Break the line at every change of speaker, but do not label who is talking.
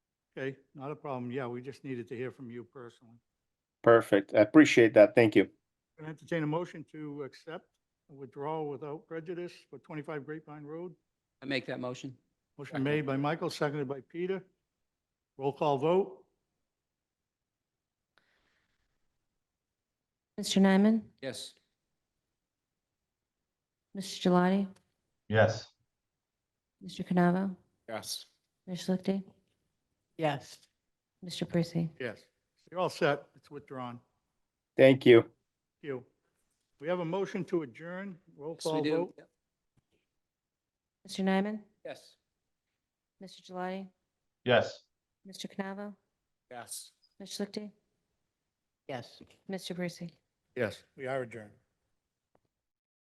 Okay, not a problem. Yeah, we just needed to hear from you personally.
Perfect. I appreciate that. Thank you.
Can I entertain a motion to accept a withdrawal without prejudice for 25 Grapevine Road?
I make that motion?
Motion
Second.
made by Michael, seconded by Peter. Roll call vote?
Mr. Nyman?
Yes.
Mr. Gelati,
yes,
Mr. Canavo?
Yes.
Ms. Schlichty?
yes,
Mr. Parisi?
Yes. You're all set. It's withdrawn.
Thank you.
Thank You. We have a motion to adjourn. Roll
Yes, we
call
do.
vote?
Yep.
Mr. Nyman?
Yes.
Mr. Gelati,
yes.
Mr. Canavo?
Yes.
Ms. Schlichty?
yes.
Mr. Parisi?
Yes, we are adjourned.